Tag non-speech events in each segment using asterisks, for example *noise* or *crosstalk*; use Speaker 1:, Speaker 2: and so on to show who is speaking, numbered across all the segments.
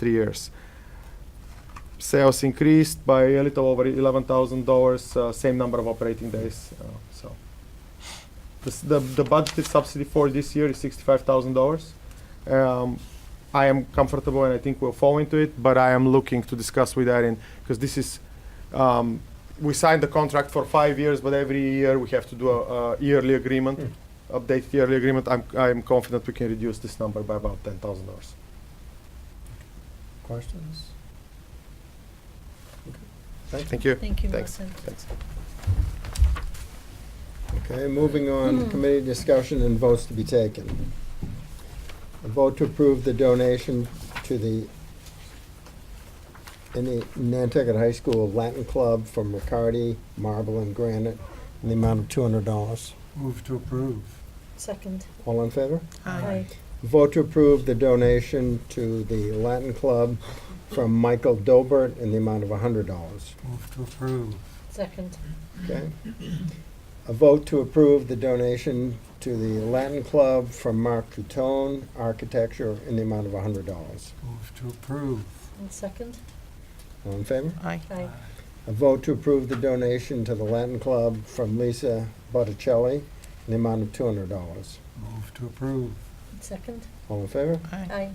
Speaker 1: three years. Sales increased by a little over $11,000, uh, same number of operating days. Uh, so the, s- the, the budgeted subsidy for this year is $65,000. Um, I am comfortable and I think we'll fall into it, but I am looking to discuss with Erin because this is, um, we signed the contract for five years, but every year we have to do a, a yearly agreement, update yearly agreement. I'm, I'm confident we can reduce this number by about $10,000.
Speaker 2: Questions? Okay, Thank you.
Speaker 1: Thank you.
Speaker 3: Thank you,
Speaker 1: Thanks.
Speaker 3: Martin.
Speaker 1: Thanks.
Speaker 2: Okay, moving on, committee discussion and votes to be taken. A vote to approve the donation to the in the Nantucket High School Latin Club from Riccardi Marble and Granite in the amount of two hundred dollars.
Speaker 4: Move to approve.
Speaker 3: Second.
Speaker 2: All in favor?
Speaker 3: Aye.
Speaker 2: Vote to approve the donation to the Latin Club from Michael Dobert in the amount of hundred dollars.
Speaker 4: Move to approve.
Speaker 3: Second.
Speaker 2: Okay. A vote to approve the donation to the Latin Club from Mark Coutone Architecture in the amount of hundred dollars.
Speaker 4: Move to approve.
Speaker 3: And second.
Speaker 2: All in favor?
Speaker 5: Aye.
Speaker 3: Aye.
Speaker 2: A vote to approve the donation to the Latin Club from Lisa Botticelli in the amount of two hundred dollars.
Speaker 4: Move to approve.
Speaker 3: And second.
Speaker 2: All in favor?
Speaker 5: Aye.
Speaker 3: Aye.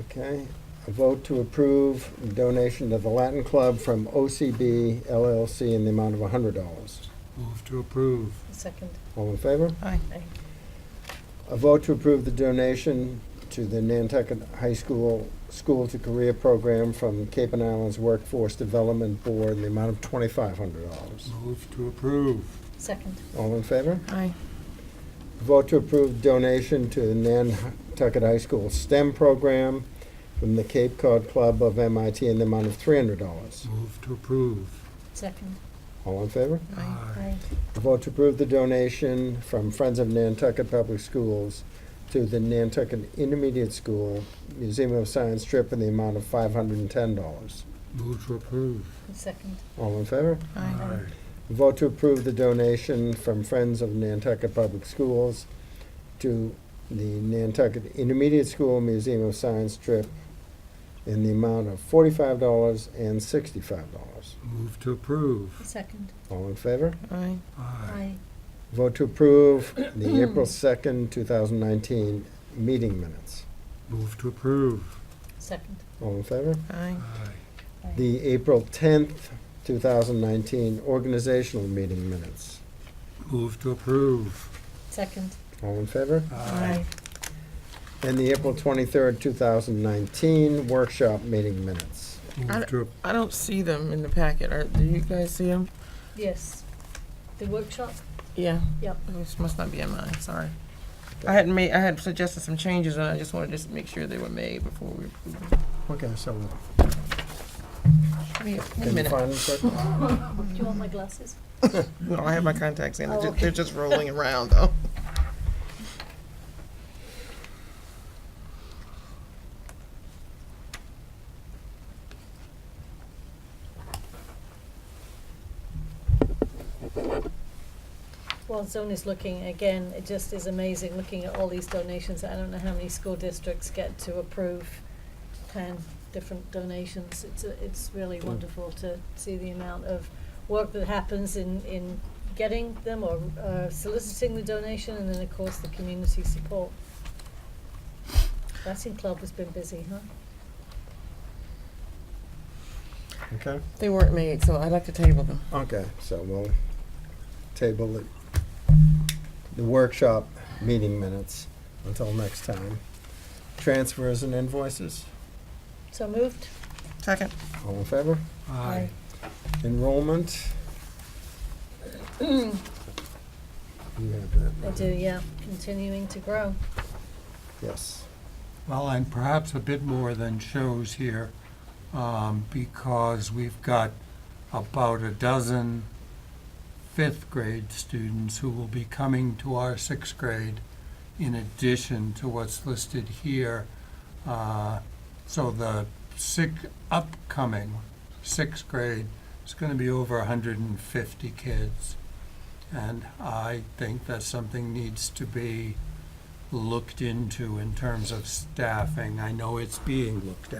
Speaker 2: Okay. A vote to approve donation to the Latin Club from OCB LLC in the amount of hundred dollars.
Speaker 4: Move to approve.
Speaker 3: And second.
Speaker 2: All in favor?
Speaker 5: Aye.
Speaker 3: Aye.
Speaker 2: A vote to approve the donation to the Nantucket High School School to Career Program from Cape and Islands Workforce Development Board in the amount of twenty-five hundred dollars.
Speaker 4: Move to approve.
Speaker 3: Second.
Speaker 2: All in favor?
Speaker 5: Aye.
Speaker 2: Vote to approve donation to the Nantucket High School STEM Program from the Cape Cod Club of MIT in the amount of three hundred dollars.
Speaker 4: Move to approve.
Speaker 3: Second.
Speaker 2: All in favor?
Speaker 5: Aye.
Speaker 3: Aye.
Speaker 2: Vote to approve the donation from Friends of Nantucket Public Schools to the Nantucket Intermediate School Museum of Science trip in the amount of five hundred and ten dollars.
Speaker 4: Move to approve.
Speaker 3: And second.
Speaker 2: All in favor?
Speaker 5: Aye.
Speaker 2: Vote to approve the donation from Friends of Nantucket Public Schools to the Nantucket Intermediate School Museum of Science trip in the amount of forty-five dollars and sixty-five dollars.
Speaker 4: Move to approve.
Speaker 3: And second.
Speaker 2: All in favor?
Speaker 5: Aye.
Speaker 3: Aye.
Speaker 2: Vote to approve the April second, two thousand nineteen meeting minutes.
Speaker 4: Move to approve.
Speaker 3: Second.
Speaker 2: All in favor?
Speaker 5: Aye.
Speaker 3: Aye.
Speaker 2: The April 10th, 2019 organizational meeting minutes.
Speaker 4: Move to approve.
Speaker 3: Second.
Speaker 2: All in favor?
Speaker 3: Aye.
Speaker 2: And the April 23rd, 2019 workshop meeting minutes.
Speaker 4: Move to, ap-
Speaker 5: I don't see them in the packet. Are, do you guys see them?
Speaker 3: Yes. The *laughs* workshop?
Speaker 5: Yeah.
Speaker 3: Yep.
Speaker 5: This must not be in mine, sorry. I had made, I had suggested some changes and I just wanted to just make sure they were made before we approve them.
Speaker 2: Okay, so.
Speaker 5: Wait, wait a
Speaker 2: Can you
Speaker 5: minute.
Speaker 2: find them quick?
Speaker 3: Do you want my glasses?
Speaker 5: No, I have my contacts in. They're
Speaker 3: Oh,
Speaker 5: ju-
Speaker 3: okay.
Speaker 5: They're just rolling around though.
Speaker 3: Well, Zone is looking, again, it just is amazing looking at all these donations. I don't know how many school districts get to approve ten different donations. It's, a- it's really wonderful to see the amount of work that happens in, in getting them or uh, soliciting the donation and then, of course, the community support. Racing Club has been busy, huh?
Speaker 2: Okay,
Speaker 5: They weren't made, so I'd like to table them.
Speaker 2: okay, so we'll table it, the workshop meeting minutes until next time. Transfers and invoices,
Speaker 3: So moved?
Speaker 5: Second.
Speaker 2: all in favor?
Speaker 4: aye.
Speaker 2: Enrollment. You have that,
Speaker 3: I
Speaker 2: right?
Speaker 3: do, yeah, continuing to grow.
Speaker 2: Yes.
Speaker 4: Well, I'm perhaps a bit more than shows here, um, because we've got about a dozen fifth grade students who will be coming to our sixth grade in addition to what's listed here. Uh, So the sick, upcoming sixth grade is gonna be over hundred and fifty kids. And I think that something needs to be looked into in terms of staffing. I know it's being looked at.